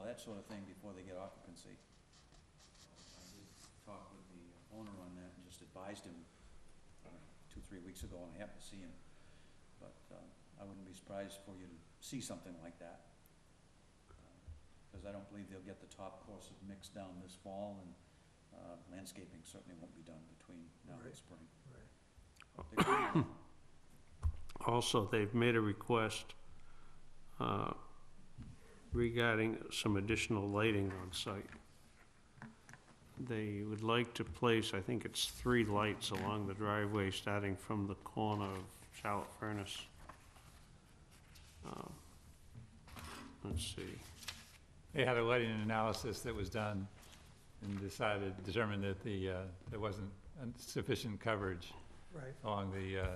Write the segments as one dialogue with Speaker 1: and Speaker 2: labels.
Speaker 1: that sort of thing before they get occupancy. I did Talk with the owner on that and just advised him uh, two, three weeks ago, and I happened to see him. But um, I wouldn't be surprised for you to see something like that. Because I don't believe they'll get the top course of mix down this fall, and uh, landscaping certainly won't be done between now and
Speaker 2: Right.
Speaker 1: spring.
Speaker 2: Right.
Speaker 1: They could-
Speaker 3: Also, they've made a request uh, regarding some additional lighting on site. They would like to place, I think it's three lights along the driveway, starting from the corner of Charlotte Furnace. Um, Let's see,
Speaker 4: They had a lighting analysis that was done and decided, determined that the, uh, there wasn't sufficient coverage
Speaker 2: Right,
Speaker 4: along the, uh,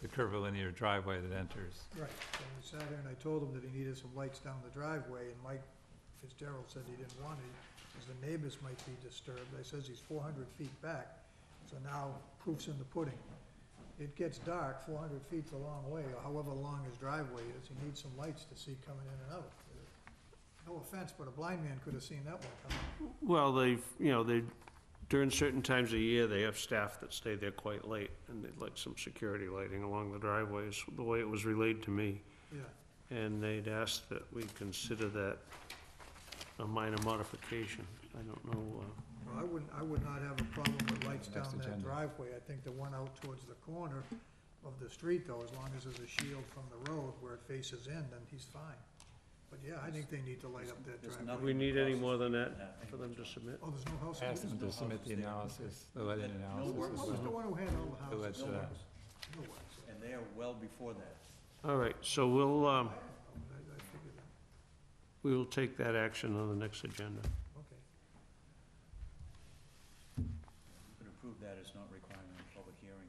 Speaker 4: the curvilinear driveway that enters.
Speaker 2: right. So we sat here and I told him that he needed some lights down the driveway, and Mike Fitzgerald said he didn't want it, because the neighbors might be disturbed. I says he's four hundred feet back, so now proof's in the pudding. It gets dark, four hundred feet's a long way, or however long his driveway is, he needs some lights to see coming in and out. No offense, but a blind man could have seen that one coming.
Speaker 3: well, they've, you know, they, during certain times of year, they have staff that stay there quite late, and they'd like some security lighting along the driveways, the way it was relayed to me.
Speaker 2: Yeah,
Speaker 3: And they'd asked that we consider that a minor modification. I don't know, uh,
Speaker 2: Well, I wouldn't, I would not have a problem with lights down
Speaker 4: Next
Speaker 2: that
Speaker 4: agenda.
Speaker 2: driveway. I think the one out towards the corner of the street though, as long as there's a shield from the road where it faces in, then he's fine. But yeah, I think they need to light up that
Speaker 1: There's
Speaker 3: do
Speaker 2: driveway.
Speaker 1: nothing-
Speaker 3: we need any more than that
Speaker 1: Yeah,
Speaker 3: for them to submit?
Speaker 2: Oh, there's no house.
Speaker 4: I asked them
Speaker 2: What
Speaker 4: to submit the analysis, the lighting
Speaker 1: No work.
Speaker 4: analysis.
Speaker 2: was the one who had all the
Speaker 4: Who
Speaker 2: houses?
Speaker 4: had-
Speaker 1: no
Speaker 4: uh,
Speaker 1: works.
Speaker 2: No one's.
Speaker 1: And they are well before that.
Speaker 3: All right, so we'll,
Speaker 2: I
Speaker 3: um,
Speaker 2: had a problem. I, I figured that,
Speaker 3: we will take that action on the next agenda.
Speaker 2: okay.
Speaker 1: You could approve that as not requiring a public hearing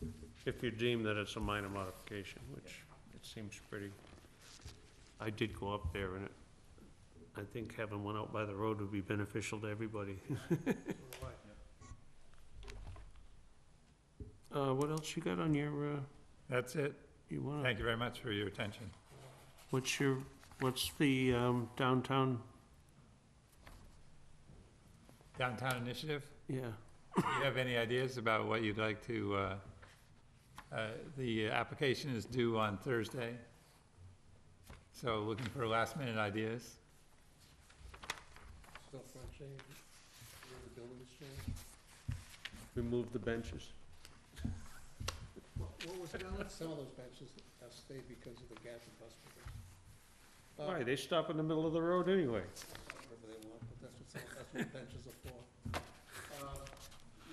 Speaker 1: and
Speaker 3: If you deem that it's a minor modification, which it seems pretty, I did go up there and it, I think having one out by the road would be beneficial to everybody.
Speaker 2: So do I.
Speaker 3: Uh, what else you got on your, uh,
Speaker 4: That's it.
Speaker 3: you wanna,
Speaker 4: Thank you very much for your attention.
Speaker 3: what's your, what's the, um, downtown,
Speaker 4: Downtown Initiative,
Speaker 3: yeah?
Speaker 4: do you have any ideas about what you'd like to, uh, uh, the application is due on Thursday. So looking for last minute ideas.
Speaker 5: stuff on change, where the buildings change.
Speaker 3: Remove the benches.
Speaker 5: What what was down, some of those benches have stayed because of the gas and bus provision. But
Speaker 3: Why, they stop in the middle of the road anyway.
Speaker 5: Whatever they want, but that's what some, that's what benches are for. Uh,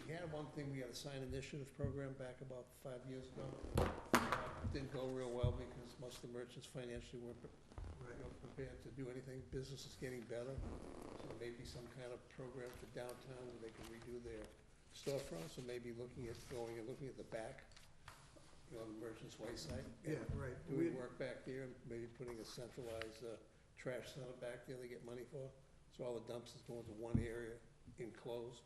Speaker 5: We had one thing, we had a sign initiative program back about five years ago. Uh, Didn't go real well because most of the merchants financially weren't pre-
Speaker 2: Right.
Speaker 5: you know, prepared to do anything. Business is getting better, so maybe some kind of program for downtown where they can redo their storefronts, or maybe looking at going and looking at the back, you know, the Merchants Way site. and
Speaker 2: Yeah, right. We,
Speaker 5: Doing work back there, and maybe putting a centralized, uh, trash center back there they get money for, so all the dumpsters go into one area enclosed,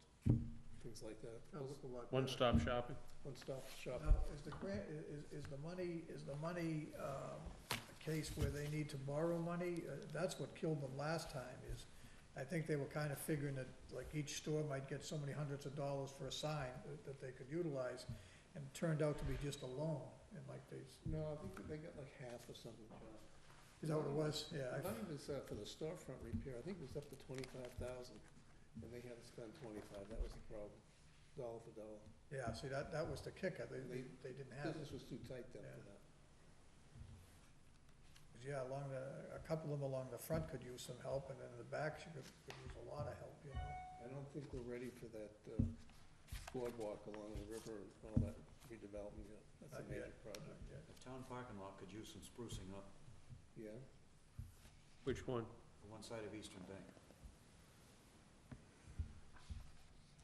Speaker 5: things like that.
Speaker 2: that looked a lot better.
Speaker 3: One-stop shopping.
Speaker 5: One-stop shop.
Speaker 2: Now, is the grant, i- is, is the money, is the money, um, a case where they need to borrow money? Uh, That's what killed them last time is, I think they were kinda figuring that, like, each store might get so many hundreds of dollars for a sign that, that they could utilize, and it turned out to be just a loan, and like they, s-
Speaker 5: No, I think they got like half or something, John.
Speaker 2: is that what it was? Yeah,
Speaker 5: I
Speaker 2: I,
Speaker 5: think it was uh, for the storefront repair, I think it was up to twenty-five thousand, and they had to spend twenty-five, that was the problem, dollar for dollar.
Speaker 2: yeah, see, that, that was the kicker, they, they, they didn't have it.
Speaker 5: Business was too tight then for that.
Speaker 2: Yeah, along the, a couple of them along the front could use some help, and then the back should, could use a lot of help, you know?
Speaker 5: I don't think we're ready for that uh, boardwalk along the river and all that redevelopment yet, that's a
Speaker 2: Not yet.
Speaker 5: major project,
Speaker 2: Yeah.
Speaker 1: The town parking lot could use some sprucing up,
Speaker 5: yeah?
Speaker 3: Which one?
Speaker 1: the one side of Eastern Bank.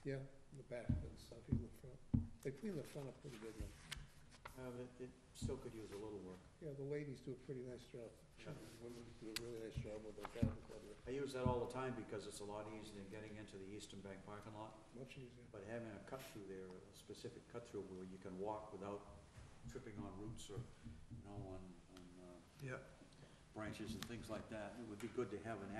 Speaker 5: Yeah, the back and stuff, even the front, they cleaned the front up pretty good now.
Speaker 1: Uh, but it, it still could use a little work.
Speaker 5: Yeah, the ladies do a pretty nice job,
Speaker 1: Yeah.
Speaker 5: women do a really nice job with their garden club, they're
Speaker 1: I use that all the time because it's a lot easier than getting into the Eastern Bank parking lot.
Speaker 5: much easier.
Speaker 1: But having a cut through there, a specific cut through where you can walk without tripping on roots or, you know, on, on, uh,
Speaker 2: Yeah.
Speaker 1: branches and things like that, it would be good to have an